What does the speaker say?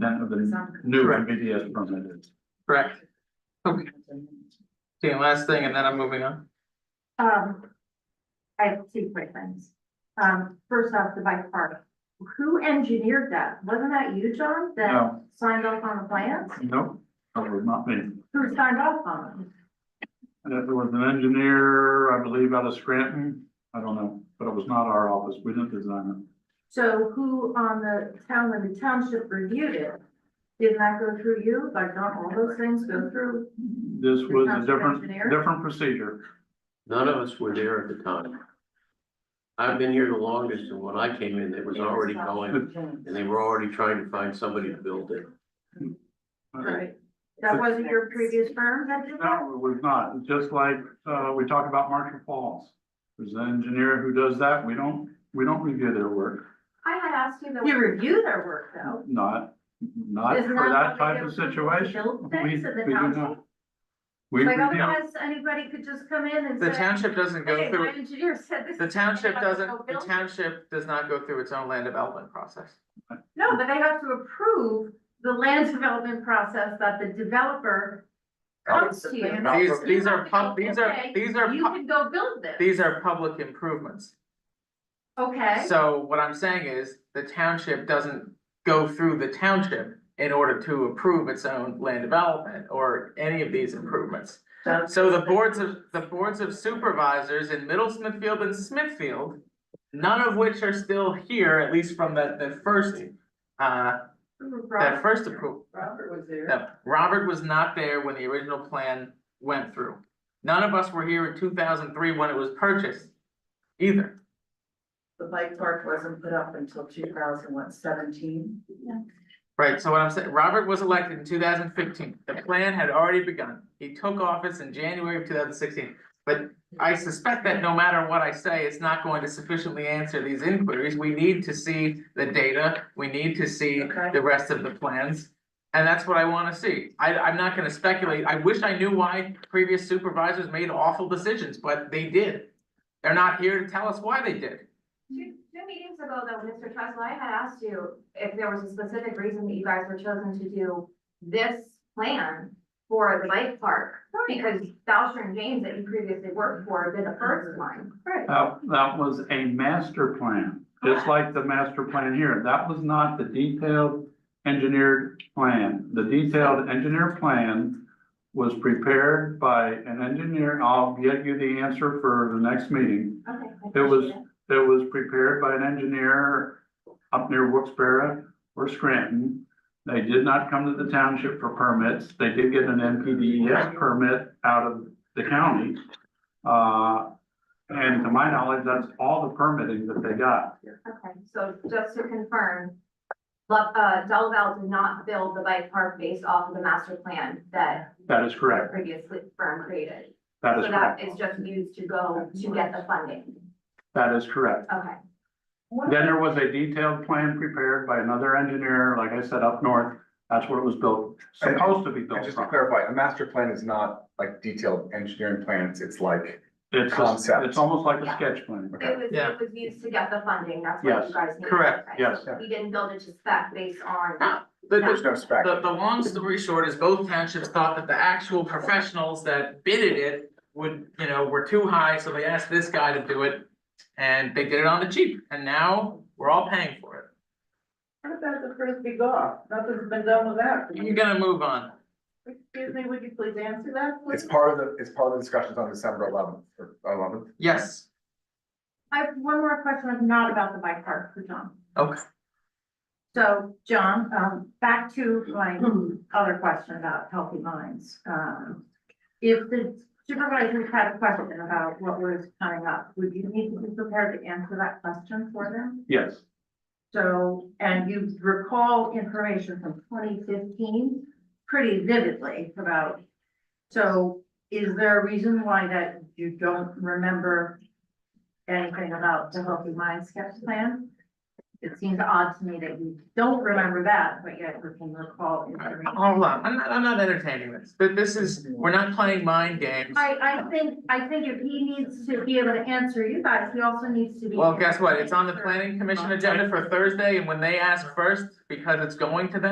the new MBTA permit is. correct? Okay, okay, last thing, and then I'm moving on. Um, I have two quick things. Um, first off, the bike park. Who engineered that? Wasn't that you, John, that No, signed off on the plans? no, that was not me. Who signed off on them? That was an engineer, I believe, out of Scranton. I don't know, but it was not our office. We didn't design So who on the town, when the township reviewed it, didn't that go through you? Like, don't all those things go through? it. This was a different, Engineer? different procedure. None of us were there at the time. I've been here the longest, and when I came in, it was already going, and they were already trying to find somebody to build it. Right. That wasn't your previous firm that did that? No, it was not. It's Just like, uh, we talk about Marshall Falls. There's an engineer who does that. We don't, we don't review their work, I had asked you that. You review their work though. not, not Isn't for that how they type of get approval to situation. Build We, we things in the do township. not. We Like review. otherwise, anybody could just come in and say. The township doesn't go Hey, my through, engineer said this. the township They have to doesn't, go the build it. township does not go through its own land development process. No, but they have to approve the land development process that the developer comes to you. These, these are pub, these are, Okay, these are, You pub- can go build this, these are public improvements. okay? So what I'm saying is, the township doesn't go through the township in order to approve its own land development or any of these improvements. So the boards of, the boards of supervisors in Middle Smithfield and Smithfield, none of which are still here, at least from the, the first, uh, that first approval. Robert was there. that Robert was not there when the original plan went through. None of us were here in two thousand three when it was purchased either. The bike park wasn't put up until two thousand what, seventeen? Right, so what I'm saying, Robert was elected in two thousand fifteen, the plan had already begun, he took office in January of two thousand sixteen. But I suspect that no matter what I say, it's not going to sufficiently answer these inquiries, we need to see the data, we need to see Okay. the rest of the plans. And that's what I wanna see, I, I'm not gonna speculate, I wish I knew why previous supervisors made awful decisions, but they did. They're not here to tell us why they did. Two, two meetings ago though, Mr. Tresla, I had asked you if there was a specific reason that you guys were chosen to do this plan for the bike park. Because Boucher and James that you previously worked for did the Mm-hmm. first one. Right. That, that was a master plan, just like the master plan here. That was not the detailed engineered plan. The detailed engineer plan was prepared by an engineer. I'll get you the answer for the next meeting. Okay. I It was- appreciate It was prepared by an engineer up near Wilkes-Barre or Scranton. They did not come to the township for permits. They did get an NPDES E permit out of the county. Uh, and to my knowledge, that's all the permitting that they got. Okay, so just to confirm, Lu- uh, Del Valle did not build the bike park based off of the master plan that That is the correct. previous firm created. That is So that correct. is just used to go to get the funding. That is correct. Okay, Then there was a detailed plan prepared by another engineer, like I said, up north. That's what it was built, supposed to be And built just to from. clarify, a master plan is not like detailed engineering plans, it's like, It's, a- Concept. it's almost like a Yeah. sketch plan. it was, Yeah. it was used to get the funding, that's what Yes, you guys need. correct, Okay. yes. We didn't build it to spec based on, The- the- there's no spec. The, the long story short is both townships thought that the actual professionals that bidded it would, you know, were too high, so they asked this guy to do it. And they did it on the cheap, and now we're all paying for What about the frisbee golf? Nothing's been done with that. it. You're gonna move on. Excuse me, would you please answer that? please? It's part of the, it's part of the discussions on December eleventh, or eleventh. Yes, I have one more question, not about the bike park for John. Okay. So, John, um, back to my other question about healthy minds. Um, if the supervisors had a question about what was coming up, would you need to be prepared to answer that question for them? Yes. So, and you recall information from twenty fifteen pretty vividly about, so is there a reason why that you don't remember anything about the Healthy Minds sketch plan? It seems odd to me that you don't remember that, but yet you can recall information. hold on, I'm not, I'm not entertaining this, but this is, we're not playing mind games. I, I think, I think if he needs to be able to answer you guys, he also needs to be. Well, guess what, it's on the planning commission agenda for Thursday, and when they ask first, because it's going to them.